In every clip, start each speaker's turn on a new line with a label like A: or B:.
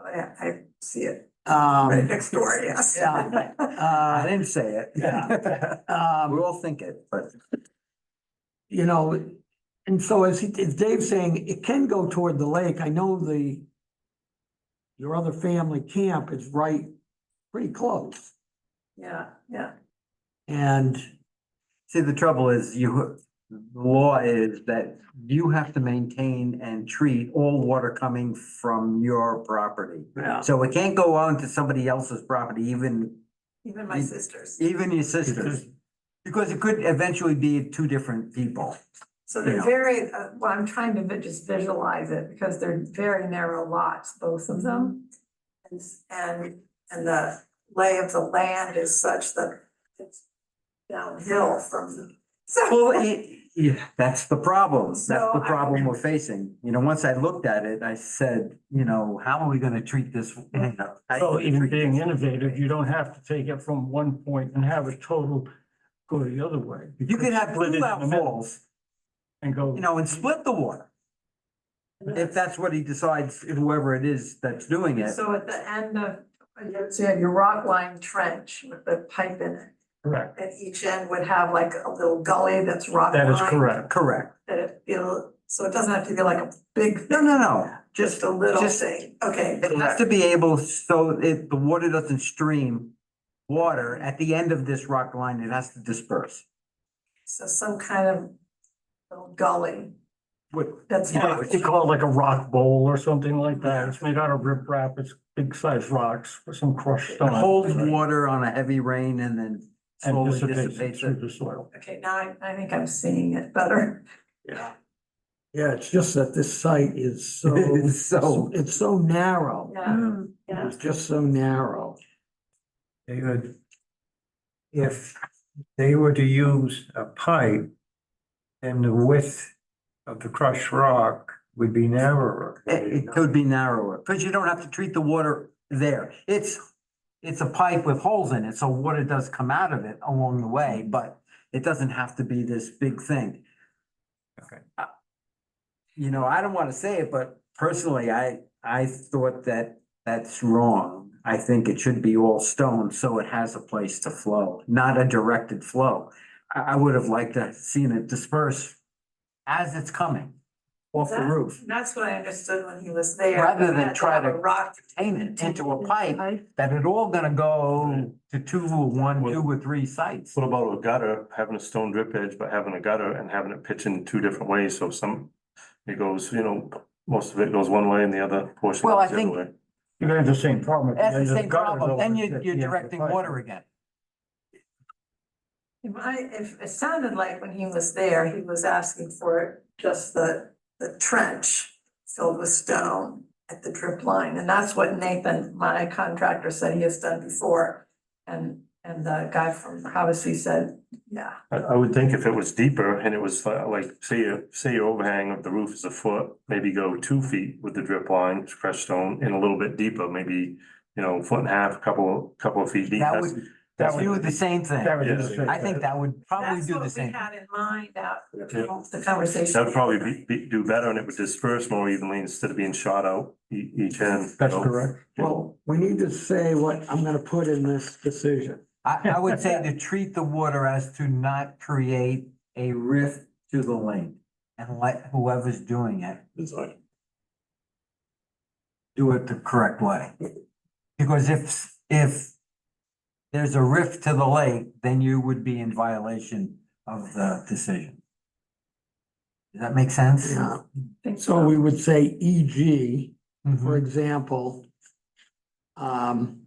A: I, I see it right
B: Um,
A: next door, yes.
B: Yeah. uh, I didn't say it, yeah.
C: We
B: Um,
C: all think it, but
B: you know, and so as, he- as Dave's saying, it can go toward the lake. I know the your other family camp is right, pretty close.
A: Yeah, yeah,
B: And
C: see, the trouble is you, the law is that you have to maintain and treat all water coming from your property.
B: Yeah.
C: So it can't go on to somebody else's property, even,
A: even my
C: You-
A: sisters.
C: even your sister's. Because it could eventually be two different people.
A: So they're
C: Yeah.
A: very, uh, well, I'm trying to vi- just visualize it because they're very narrow lots, both of them. And, s- and, and the lay of the land is such that it's downhill from. So,
C: Well, it, yeah, that's the problem. That's
A: So
C: the
A: I-
C: problem we're facing. You know, once I looked at it, I said, you know, how are we gonna treat this? you know, how you
D: Mm-hmm. So
C: gonna
D: even
C: treat
D: being
C: this?
D: innovative, you don't have to take it from one point and have a total go the other way.
C: You could have
D: Split it in
C: two
D: the middle
C: outfalls,
D: And go,
C: you know, and split the water. If that's what he decides, whoever it is that's doing it.
A: so at the end of, so you have your rock line trench with the pipe in it.
D: correct,
A: And each end would have like a little gully that's rock
D: that is
A: lined,
D: correct.
C: Correct.
A: That it feel, so it doesn't have to be like a big,
C: No, no, no.
A: just a little
C: just-
A: thing, okay.
C: It has to be able, so it, the water doesn't stream water at the end of this rock line, it has to disperse.
A: So some kind of little gully,
C: What,
A: that's
C: Yeah,
A: fine.
C: it's-
D: They call it like a rock bowl or something like that. It's made out of riprap, it's big sized rocks with some crushed
C: it
D: stone.
C: holds water on a heavy rain and then
D: Oh, And
C: slowly
D: dissipates it
C: dissipates
D: through
C: it.
D: the soil.
A: Okay, now I, I think I'm seeing it better.
D: Yeah.
B: yeah, it's just that this site is so,
C: It's so-
B: it's so narrow.
A: Yeah, yeah.
B: It's just so narrow.
E: David, if they were to use a pipe, then the width of the crushed rock would be narrower.
C: It, it could be narrower, because you don't have to treat the water there. It's, it's a pipe with holes in it, so water does come out of it along the way, but it doesn't have to be this big thing.
E: Okay.
C: Uh, You know, I don't want to say it, but personally, I, I thought that that's wrong. I think it should be all stone, so it has a place to flow, not a directed flow. I, I would have liked to have seen it disperse as it's coming off the
A: That-
C: roof.
A: That's what I understood when he was there.
C: Rather than
A: Had
C: try
A: have a
C: to-
A: Rock.
C: contain it into a pipe, that it all gonna go to two or one,
F: Well-
C: two or three sites.
F: What about a gutter, having a stone drip edge, but having a gutter and having it pitched in two different ways, so some, it goes, you know, most of it goes one way and the other portion
C: Well, I
F: goes the other
C: think-
F: way.
D: You have the same problem. if you
C: That's the
D: use
C: same
D: gutters
C: problem,
D: over
C: then
D: the
C: you're,
D: tip,
C: you're
D: you have the
C: directing
D: pipe.
C: water again.
A: If I, if it sounded like when he was there, he was asking for just the, the trench filled with stone at the drip line, and that's what Nathan, my contractor, said he has done before. And, and the guy from Havasu said, yeah,
F: I, I would think if it was deeper and it was uh, like, say, your- say your overhang of the roof is a foot, maybe go two feet with the drip line, fresh stone, and a little bit deeper, maybe, you know, foot and a half, couple, couple of feet deep.
C: That
F: That's-
C: would
D: That would-
C: do the same thing.
D: That would do the
F: Yeah.
D: same
C: I think
D: thing.
C: that would probably
A: that's
C: do
A: what
C: the
A: we
C: same.
A: had in mind out,
F: Yeah.
A: the conversation.
F: That would probably be, be, do better and it would disperse more evenly instead of being shot out e- each end.
D: That's
F: so-
D: correct.
B: Well, we need to say what I'm gonna put in this decision.
C: I, I would say to treat the water as to not create a rift to the lane and let whoever's doing it do it the correct way. Because if, if there's a rift to the lake, then you would be in violation of the decision. Does that make sense?
B: Yeah,
A: Think
B: so we would say EG, for
C: Mhm.
B: example. Um,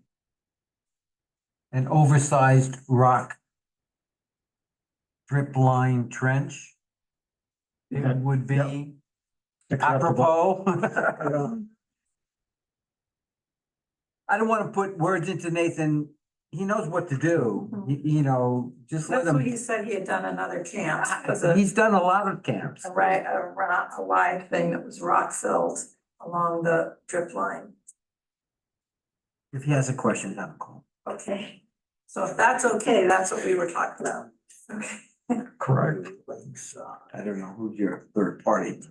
C: An oversized rock drip line trench.
D: Yeah,
C: It would
D: yeah.
C: be
D: Acceptable.
C: apropos.
B: uh,
C: I don't want to put words into Nathan. He knows what to do,
A: Mhm.
C: Y- you know, just let
A: That's what he
C: him. Ah,
A: said he had done in other camps, was a,
C: He's done a lot of camps.
A: a right, a rock, a wide thing that was rock filled along the drip line.
C: If he has a question, have a call.
A: Okay, so if that's okay, that's what we were talking about. Okay.
D: Correct.
C: uh, I don't know who's your third party.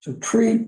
B: so treat